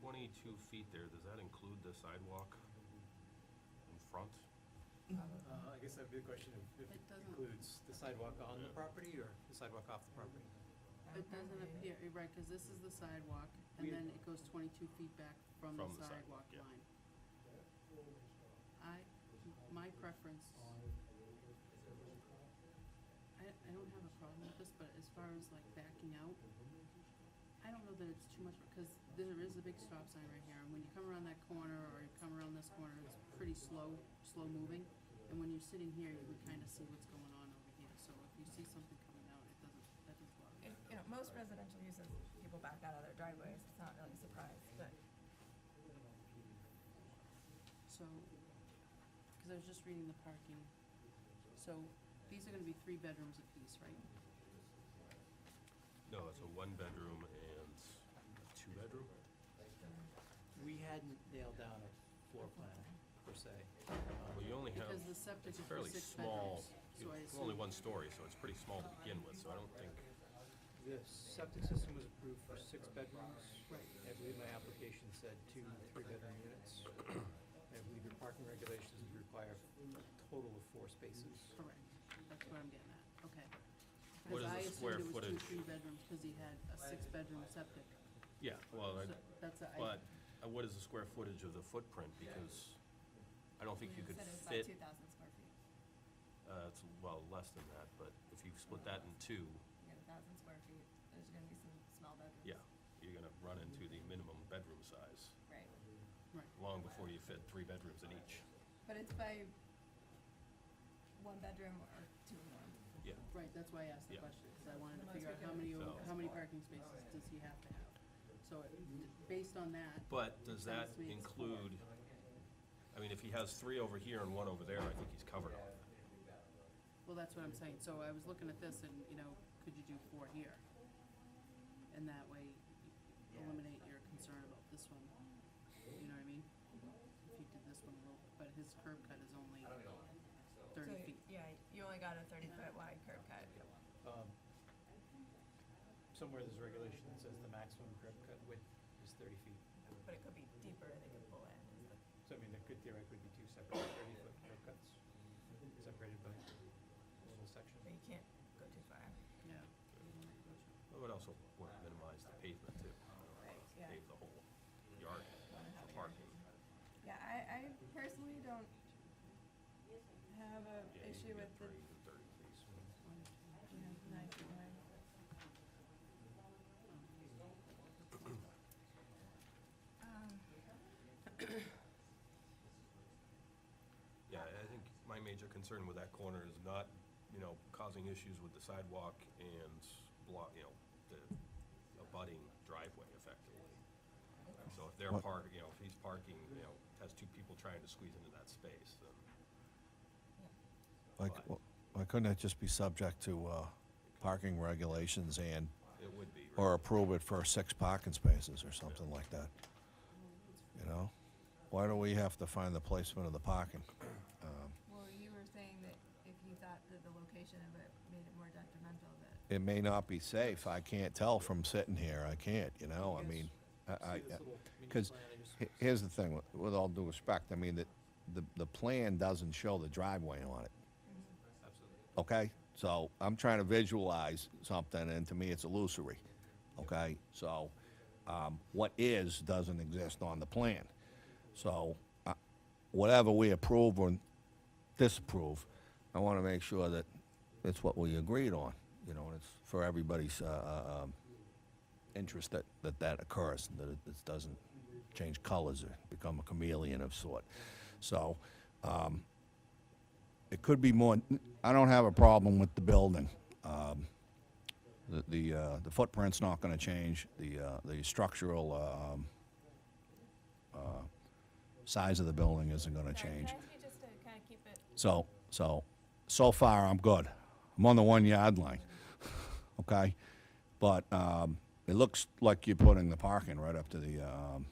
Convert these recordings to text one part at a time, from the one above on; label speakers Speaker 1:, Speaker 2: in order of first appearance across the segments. Speaker 1: twenty-two feet there, does that include the sidewalk in front?
Speaker 2: Uh, I guess that'd be the question, if- if
Speaker 3: It
Speaker 2: it
Speaker 3: doesn't-
Speaker 2: includes the sidewalk on the property or the sidewalk off the property?
Speaker 3: It doesn't appear, you're right, because this is the sidewalk,
Speaker 2: We-
Speaker 3: and then it goes twenty-two feet back from the
Speaker 1: From the sidewalk, yeah.
Speaker 3: sidewalk line. I, my preference. I, I don't have a problem with this, but as far as like backing out, I don't know that it's too much, because there is a big stop sign right here, and when you come around that corner, or you come around this corner, it's pretty slow, slow moving. And when you're sitting here, you can kind of see what's going on over here, so if you see something coming out, it doesn't, that doesn't bother me.
Speaker 4: And, you know, most residential uses, people back out of their driveways, it's not really a surprise, but
Speaker 3: So, because I was just reading the parking, so these are gonna be three bedrooms apiece, right?
Speaker 1: No, it's a one-bedroom and a two-bedroom?
Speaker 2: We hadn't nailed down a floor plan per se.
Speaker 1: Well, you only have,
Speaker 3: Because the septic
Speaker 1: it's
Speaker 3: is for
Speaker 1: fairly
Speaker 3: six
Speaker 1: small,
Speaker 3: bedrooms, so I
Speaker 1: it's only
Speaker 3: assume,
Speaker 1: one story, so it's pretty small to begin with, so I don't think,
Speaker 2: The septic system was approved for six bedrooms. I believe my application said two three-bedroom units. I believe your parking regulations would require a total of four spaces.
Speaker 3: correct, that's what I'm getting at, okay.
Speaker 1: What is
Speaker 3: Because I
Speaker 1: the square
Speaker 3: assumed it was two,
Speaker 1: footage?
Speaker 3: three bedrooms, because he had a six-bedroom septic,
Speaker 1: yeah, well, I-
Speaker 3: so that's a, I,
Speaker 1: but uh, what is the square footage of the footprint? Because I don't think you could
Speaker 4: said it was about
Speaker 1: fit,
Speaker 4: two thousand square feet.
Speaker 1: uh, it's, well, less than that, but if you split that in two,
Speaker 4: You get a thousand square feet, there's gonna be some small bedrooms.
Speaker 1: yeah, you're gonna run into the minimum bedroom size,
Speaker 4: Right,
Speaker 3: right,
Speaker 1: long before you fit three bedrooms in each,
Speaker 4: but it's by one bedroom or two or more.
Speaker 1: yeah.
Speaker 3: right, that's why I asked the
Speaker 1: Yeah.
Speaker 3: question, because I wanted to
Speaker 4: Most
Speaker 3: figure out how
Speaker 4: bedrooms.
Speaker 3: many,
Speaker 1: So-
Speaker 3: how many parking spaces does he have to have? So, it- based on that,
Speaker 1: But does that
Speaker 3: Sounds sweet.
Speaker 1: include, I mean, if he has three over here and one over there, I think he's covered on that.
Speaker 3: Well, that's what I'm saying, so I was looking at this and, you know, could you do four here? And that way you eliminate your concern about this one, you know what I mean? If you did this one a little, but his curb cut is only
Speaker 4: So,
Speaker 3: thirty feet.
Speaker 4: Yeah, you only got a thirty foot wide curb cut.
Speaker 2: Um, Somewhere there's a regulation that says the maximum curb cut width is thirty feet.
Speaker 4: But it could be deeper, they could pull in, is the
Speaker 2: So I mean, there could theoretically be two separate thirty-foot curb cuts, separated by a little section.
Speaker 4: but you can't go too far.
Speaker 3: Yeah.
Speaker 1: It would also would minimize the pavement too.
Speaker 4: Right, yeah.
Speaker 1: Pave the whole yard for parking.
Speaker 4: Yeah, I, I personally don't have a
Speaker 1: Yeah, you
Speaker 4: issue
Speaker 1: can
Speaker 4: with
Speaker 1: get
Speaker 4: the,
Speaker 1: three to thirty please.
Speaker 4: you know, nine foot wide. Um,
Speaker 1: Yeah, I think my major concern with that corner is not, you know, causing issues with the sidewalk and block, you know, the abutting driveway effectively. So if they're
Speaker 5: What-
Speaker 1: park, you know, if he's parking, you know, has two people trying to squeeze into that space, then
Speaker 5: Like,
Speaker 1: Why?
Speaker 5: wh- why couldn't it just be subject to uh, parking regulations and,
Speaker 1: it would be. right?
Speaker 5: or approve it for six parking spaces or something like that? You know? Why do we have to find the placement of the parking? Um,
Speaker 4: Well, you were saying that if you thought that the location of it made it more detrimental, that,
Speaker 5: It may not be safe, I can't tell from sitting here, I can't, you know, I mean, I, I.
Speaker 2: See this little mini
Speaker 5: Because
Speaker 2: plan I just-
Speaker 5: here's the thing, with- with all due respect, I mean, the, the, the plan doesn't show the driveway on it.
Speaker 2: Absolutely.
Speaker 5: okay? So I'm trying to visualize something, and to me, it's illusory, okay? So um, what is doesn't exist on the plan. So uh, whatever we approve or disapprove, I want to make sure that it's what we agreed on, you know, and it's for everybody's uh, uh, um, interest that, that that occurs, and that it this doesn't change colors or become a chameleon of sort. So um, it could be more, I don't have a problem with the building. Um, The, the, uh, the footprint's not gonna change, the, uh, the structural, um, uh, size of the building isn't gonna
Speaker 6: Sorry,
Speaker 5: change.
Speaker 6: Can I ask you just to kind of keep it,
Speaker 5: So, so, so far, I'm good. I'm on the one yard line, okay? But, um, it looks like you're putting the parking right up to the, um,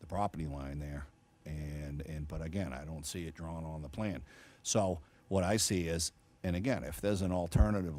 Speaker 5: the property line there. And, and, but again, I don't see it drawn on the plan. So what I see is, and again, if there's an alternative